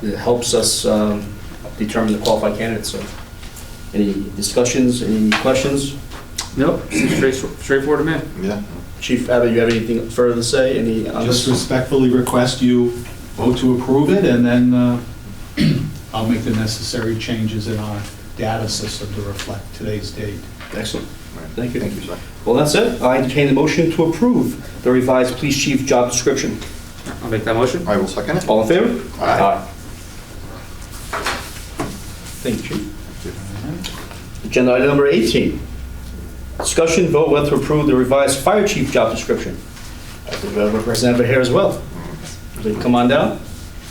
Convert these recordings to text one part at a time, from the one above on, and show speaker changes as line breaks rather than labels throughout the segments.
It helps us um, determine the qualified candidates, so. Any discussions, any questions?
Nope, seems straight- straightforward to me.
Yeah.
Chief Abbott, you have anything further to say? Any? on this?
Just respectfully request you vote to approve it, and then uh, I'll make the necessary changes in our data system to reflect today's date.
Excellent. Thank you.
Thank you, sir.
Well, that's it. I entertain the motion to approve the revised police chief job description.
I'll make that motion.
I will second it.
All in favor?
Aye.
Thank you, Chief. Agenda item number 18. Discussion vote whether to approve the revised fire chief job description. I think we have a representative here as well. Please Come on down.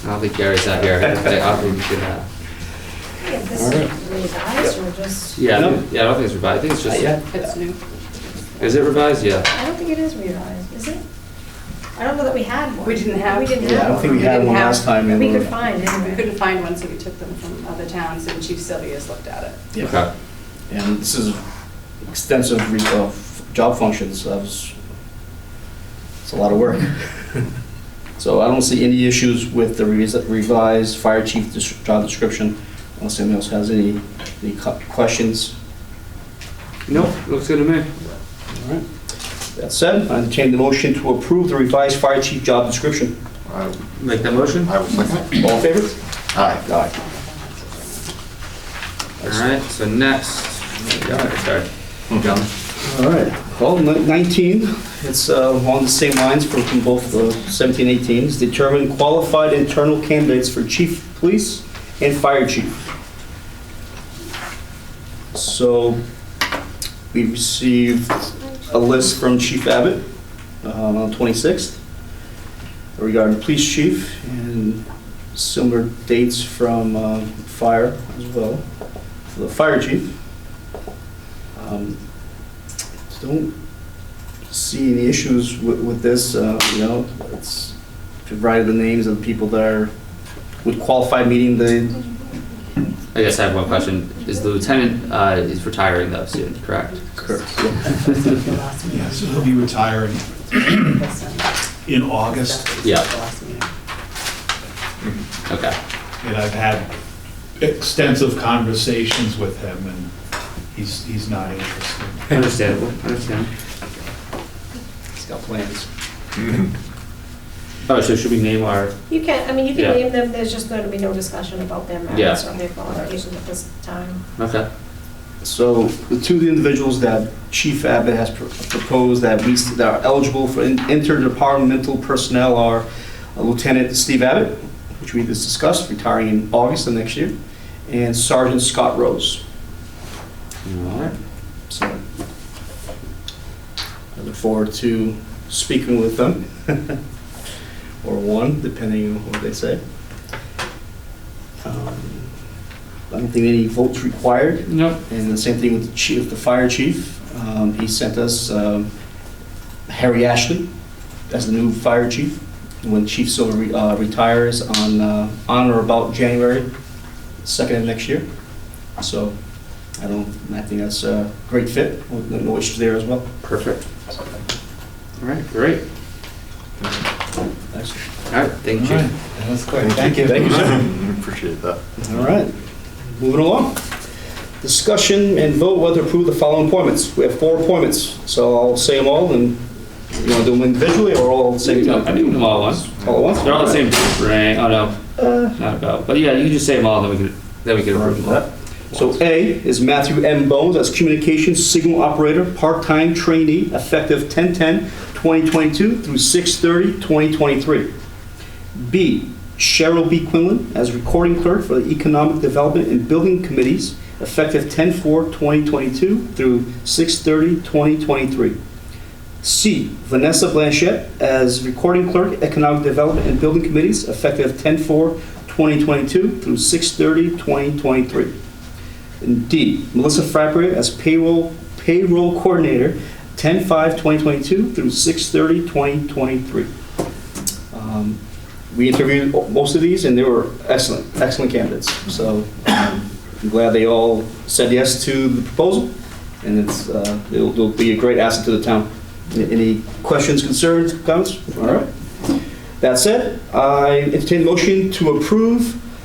I don't think Gary's not here. I don't think we should uh, have.
Yeah, this is revised or just,
Yeah, I
No.
don't- Uh, yeah, I don't think it's revised. I think it's just,
Yeah.
It's new.
is it revised? Yeah.
I don't think it is revised, is it? I don't know that we had one.
We didn't have-
We didn't have.
Yeah, I don't think we
had
had
one
one
have-
last
last
time.
one. We could find
We
anyway.
couldn't find one, so we took them from other towns, and Chief Sylvia's looked at it.
Okay.
And this is extensive re- uh, f- job functions, that was, it's a lot of work. So I don't see any issues with the revis- revised fire chief dis- job description, unless anyone else has any, any cu- questions.
Nope, looks good to me.
That said, I entertain the motion to approve the revised fire chief job description.
I
Make that motion.
I will second it.
All in favor?
Aye.
Aye.
All right, so next. Yeah, Sorry. John.
All right, well, ni- 19, it's uh, along the same lines for from both uh, 17, 18, is determine qualified internal candidates for chief of police and fire chief. So we received a list from Chief Abbott um, on 26th regarding police chief and similar dates from um, fire as well, for the fire chief. Um, don't see any issues with, with this, uh, you know, it's provided the names of the people that are, would qualify meeting the,
I guess I have one question. Is the lieutenant, uh, is retiring though soon, correct?
Yeah, so he'll be retiring in August,
Yeah. Okay.
and I've had extensive conversations with him, and he's, he's not interested.
Understandable, understand.
it's got plans.
Oh, so should we name our,
You can, I mean, you can
Yeah.
name them, there's just going to be no discussion about their
Yeah.
merits or their qualifications at this time.
okay.
So the two of the individuals that Chief Abbott has pro- proposed that we, that are eligible for in- interdepartmental personnel are uh, Lieutenant Steve Abbott, which we just discussed, retiring in August of next year, and Sergeant Scott Rose.
All right.
So I look forward to speaking with them, or one, depending on what they say. Um, I don't think any votes required,
Nope.
and the same thing with the chief, the fire chief. Um, He sent us um, Harry Ashley as the new fire chief, when Chief Silver re- uh, retires on, uh, on or about January 2nd of next year. So I don't, I think that's a great fit, no issues there as well.
Perfect.
All right, great.
Excellent.
All right, thank you. Chief.
That's quick, thank you.
Thank you, sir.
Appreciate that.
All right, moving along. Discussion and vote whether to approve the following appointments. We have four appointments, so I'll say them all, and you want to do them individually or all at the same
I
time?
think them all at once.
All at once?
They're all the same rank. Oh, no, not about. But yeah, you can just say them all, then we can, then we can approve them all.
So A is Matthew M. Bones as communications signal operator, part-time trainee, effective 10/10/2022 through 6/30/2023. B, Cheryl B. Quinlan as recording clerk for the Economic Development and Building Committees, effective 10/4/2022 through 6/30/2023. C, Vanessa Blanchette as recording clerk, Economic Development and Building Committees, effective 10/4/2022 through 6/30/2023. And D, Melissa Frappier as payroll, payroll coordinator, 10/5/2022 through 6/30/2023. Um, We interviewed most of these, and they were excellent, excellent candidates. So um, I'm glad they all said yes to the proposal, and it's, uh, it'll it'll be a great asset to the town. A- Any questions, concerns, comments? All right. That said, I entertain a motion to approve